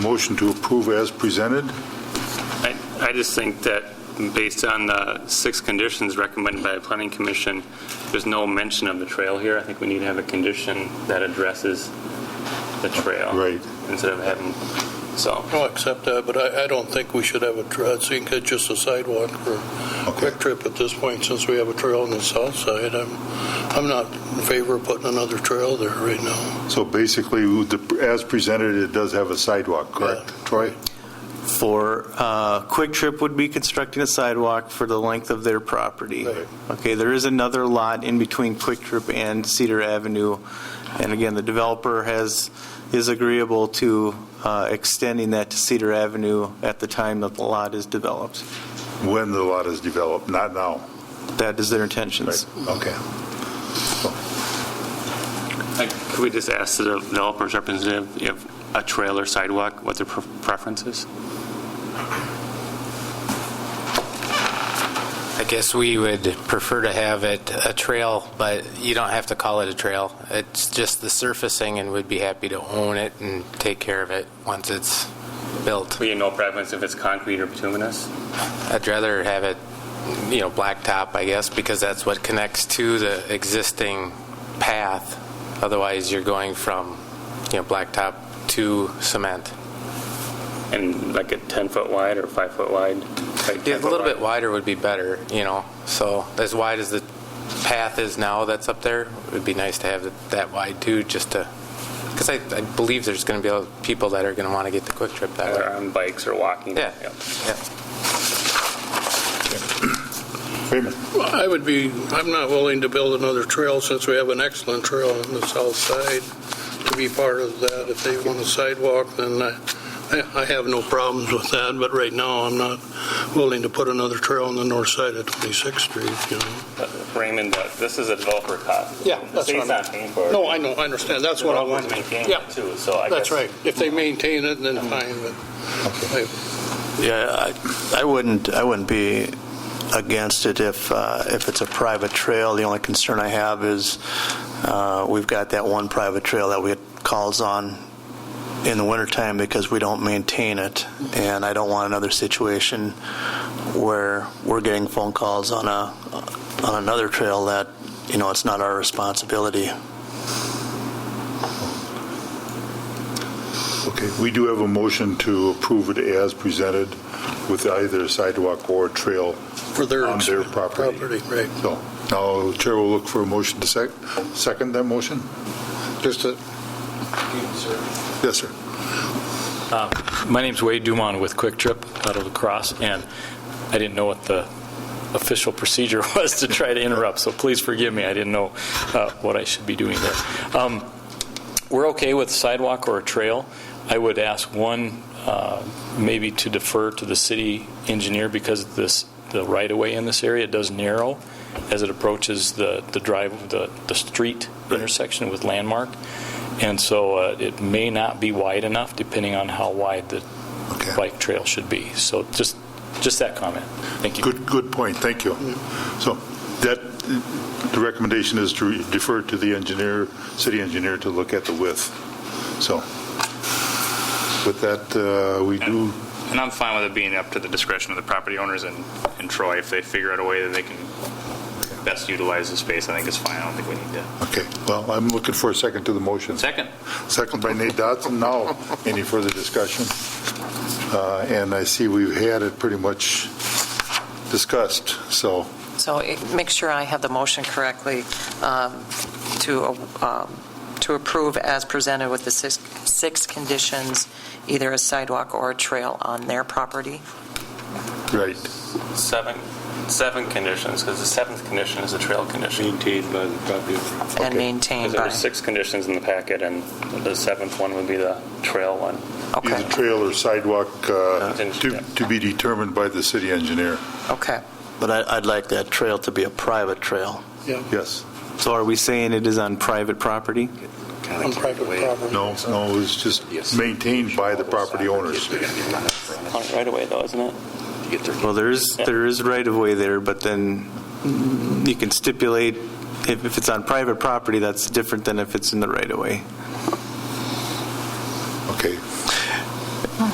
Motion to approve as presented. I I just think that based on the six conditions recommended by the planning commission, there's no mention of the trail here. I think we need to have a condition that addresses the Oh. trail. Right. Instead of having, so, I'll accept that, but I, I don't think we should have a trail. I think it's just a sidewalk for a Okay. quick trip at this point, since we have a trail on the south side. I'm, I'm not in favor of putting another trail there right now. So basically, with the- as presented, it does have a sidewalk, correct, Troy? For, uh, Quick Trip would be constructing a sidewalk for the length of their property. Right. Okay, there is another lot in between Quick Trip and Cedar Avenue. And again, the developer has, is agreeable to uh, extending that to Cedar Avenue at the time that the lot is developed. When the lot is developed, not now. That is their intentions. Okay. like, could we just ask the developer's representative if a trail or sidewalk, what their pre- preference is? I guess we would prefer to have it a trail, but you don't have to call it a trail. It's just the surfacing, and we'd be happy to own it and take care of it once it's built. We have no preference if it's concrete or bituminous? I'd rather have it, you know, blacktop, I guess, because that's what connects to the existing path. Otherwise, you're going from, you know, blacktop to cement. And like a 10-foot wide or 5-foot wide? Like Yeah, a 10 -foot little bit wide? wider would be better, you know, so as wide as the path is now that's up there, it'd be nice to have it that wide too, just to, because I, I believe there's going to be a lot of people that are going to want to get the quick trip that Either way. on bikes or walking. Yeah. Yep. Yeah. Raymond? I would be, I'm not willing to build another trail, since we have an excellent trail on the south side, to be part of that. If they want a sidewalk, then I, I- I have no problems with that, but right now, I'm not willing to put another trail on the north side of 26th Street, you know? Raymond, uh, this is a developer cost. Yeah, that's The state's what I not paying for it. No, I know, I understand, that's what I want. Developers maintain Yeah. it too, so I guess. That's right. If they maintain it, then fine, but Yeah, I- I wouldn't, I wouldn't be against it if, uh, if it's a private trail. The only concern I have is uh, we've got that one private trail that we had calls on in the wintertime because we don't maintain it. And I don't want another situation where we're getting phone calls on a, on another trail that, you know, it's not our responsibility. Okay, we do have a motion to approve it as presented with either sidewalk or trail. for their. On their property. right. So now Chair will look for a motion to sec, second that motion? Just a... Yes, sir. My name's Wade Dumont with Quick Trip out of La Crosse, and I didn't know what the official procedure was to try to interrupt, so please forgive me. I didn't know uh, what I should be doing there. Um, We're okay with sidewalk or a trail. I would ask one, uh, maybe to defer to the city engineer because this, the right-of-way in this area does narrow as it approaches the the drive, the the street intersection with Landmark. And so uh, it may not be wide enough, depending on how wide the Okay. bike trail should be. So just, just that comment. Thank you. Good, good point, thank you. So that, the recommendation is to defer to the engineer, city engineer to look at the width. So with that, uh, we do, And I'm fine with it being up to the discretion of the property owners and, and Troy, if they figure out a way that they can best utilize the space, I think it's fine, I don't think we need to. okay, well, I'm looking for a second to the motion. Second, Second by Nate Dodson. Now, any further discussion? Uh, And I see we've had it pretty much discussed, so, So it- make sure I have the motion correctly um, to um, to approve as presented with the six six conditions, either a sidewalk or a trail on their property. right. Seven, seven conditions, because the seventh condition is the trail condition. Maintained by the property. Okay. And maintained there were by, six conditions in the packet, and the seventh one would be the trail one. Either okay, trail or sidewalk uh, to Contingent. to be determined by the city engineer. okay. But I, I'd like that trail to be a private trail. Yes. So are we saying it is on private property? On private property. No, no, it's just maintained by the property owners. On it Right away, though, isn't it? Well, there is, there is right-of-way there, but then you can stipulate, if, if it's on private property, that's different than if it's in the right-of-way.